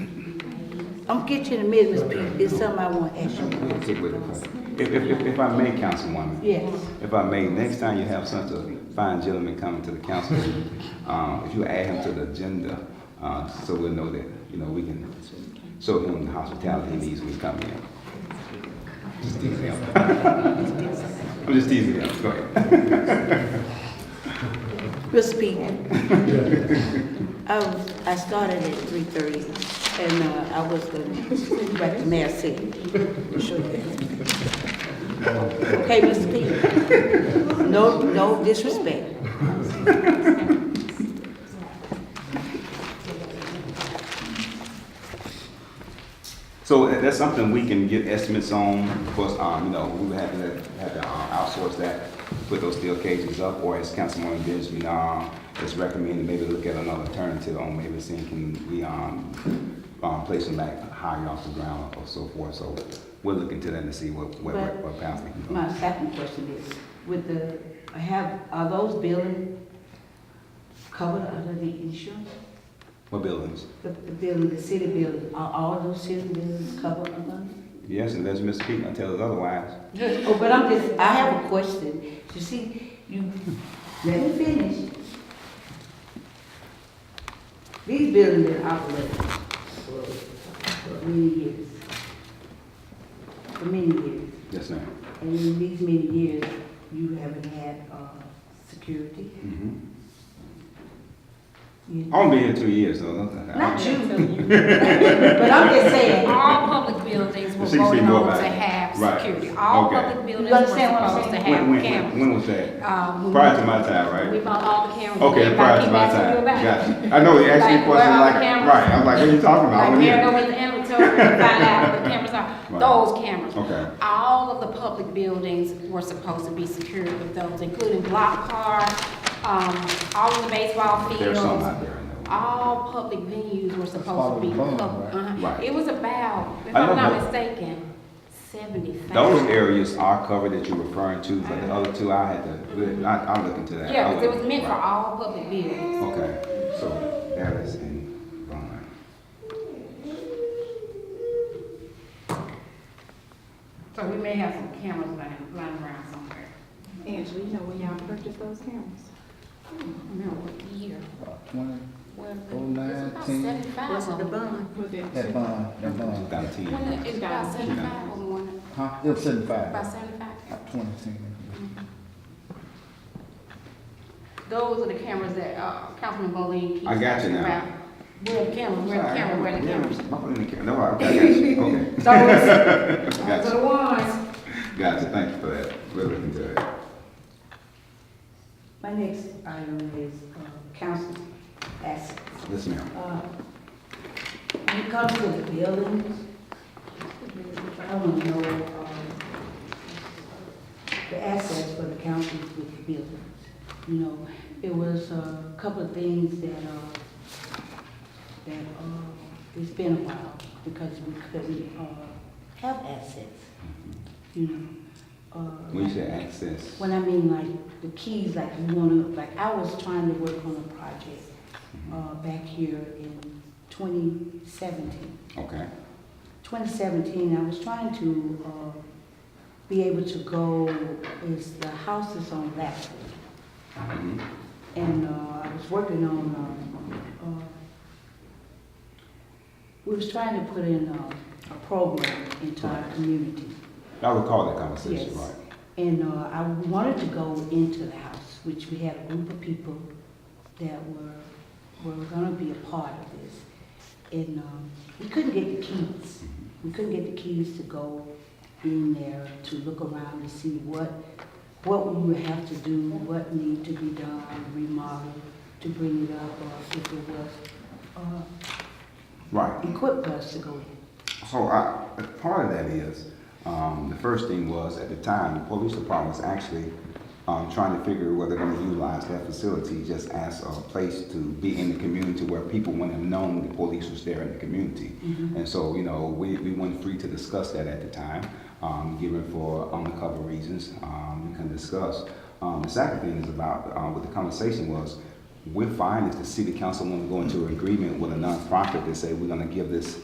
I'm getting to the middle, Miss Pete, it's something I want to ask you, Get with it. If, if, if- if I may, Councilwoman. yes. If I may, next time you have such a fine gentleman coming to the council, um, if you add him to the agenda, uh, so we'll know that, you know, we can show him the hospitality he needs when he comes in. Just teasing him. I'm just teasing him, go ahead. Miss Pete. I was, I started at three thirty, and, uh, I was gonna, like the mayor said. Okay, Miss Pete, no, no disrespect. So tha- that's something we can get estimates on, of course, um, you know, we would have to, have to uh, outsource that, put those steel cages up, or as Councilwoman Benjamin, um, is recommending, maybe look at another alternative on maybe seeing can we, um, um, place them like higher off the ground or so forth, so we'll look into that and see what, what, But- what path we can go. My second question is, with the, have, are those buildings covered under the insurance? What buildings? The, the building, the city building, are all those city buildings covered under? Yes, unless Mr. Keaton tells us otherwise. Oh, but I'm just, I have a question. You see, you, let me finish. These buildings been operating for many years. For many years. Yes, ma'am. And in these many years, you haven't had, uh, security. Mhm. You- I'll be here two years, so. Not you, but I'm just saying, All public buildings were She said voted more on about to it. have Right. security. All Okay. public buildings You were understand what I'm supposed to saying? When, have when- when, cameras. when was that? Um, we- Prior to my time, right? We bought all the cameras. Okay, Everybody prior to keep my asking you time. about it. Gotcha. I know, you asked me a Like, where question are like, the cameras? right, I was like, what are you talking about? I Like, wasn't we're here. going to inventory and find out where the cameras are, Right. those cameras. Okay. All of the public buildings were supposed to be secured with those, including block car, um, all of the baseball fields. There's some out there, I know. All public venues were supposed to be Follow the plan, public. right? uh-huh. Right. It was about, if I know I'm not how- mistaken, seventy-five. Those areas are covered that you're referring to, but the other two, I had to, I, I'll look into that. Yeah, I'll because it look- was meant for right. all public buildings. Okay, so that is in Vaughn. So we may have some cameras lying, lying around somewhere. Angela, you know where y'all purchased those cameras? I don't know what year. Twenty, Well, It's Oh, nine, about ten, seventy-five of them. Was it? that bond, that Two bond. thousand ten. When it- It's about seventy-five of them, wasn't it? Huh? It was about seventy-five. seventy-five. Twenty ten. Those are the cameras that, uh, Councilman Bowling keeps I got you asking now. about. Where the camera, where the camera, where the Yeah, camera. I'm putting the camera, no, I, I got you, okay. So, Gotcha. those are the ones. Gotcha, thank you for that. We'll look into it. my next item is, uh, council asking. Yes, ma'am. Uh, When it comes to the buildings, I want to know, um, the assets for the council with the buildings. You know, it was a couple of things that, uh, that, uh, it's been a while because we couldn't, uh, have assets, you know. uh, Mm-hmm. When you say access, when I mean like the keys, like you wanna, like I was trying to work on a project, uh, back here in twenty seventeen. okay, 2017, I was trying to uh, be able to go, is the house is on Lathrop. Mm-hmm. And uh, I was working on, um, uh, we was trying to put in uh, a program into our community. I recall that conversation, Yes. right? And uh, I wanted to go into the house, which we had a group of people that were, were gonna be a part of this. And um, we couldn't get the keys. We couldn't get the keys to go in there to look around and see what, what we would have to do, what need to be done, remodel, to bring it up, or if it was, uh, Right. equipped us to go in. So I, part of that is, um, the first thing was, at the time, the police department was actually, um, trying to figure whether they're gonna utilize that facility just as a place to be in the community where people wouldn't have known the police was there in the community. Mm-hmm. And so, you know, we, we weren't free to discuss that at the time, um, given for undercover reasons, um, we can discuss. Um, the second thing is about, uh, what the conversation was, we're fine if the city council want to go into agreement with a nonprofit to say, we're gonna give this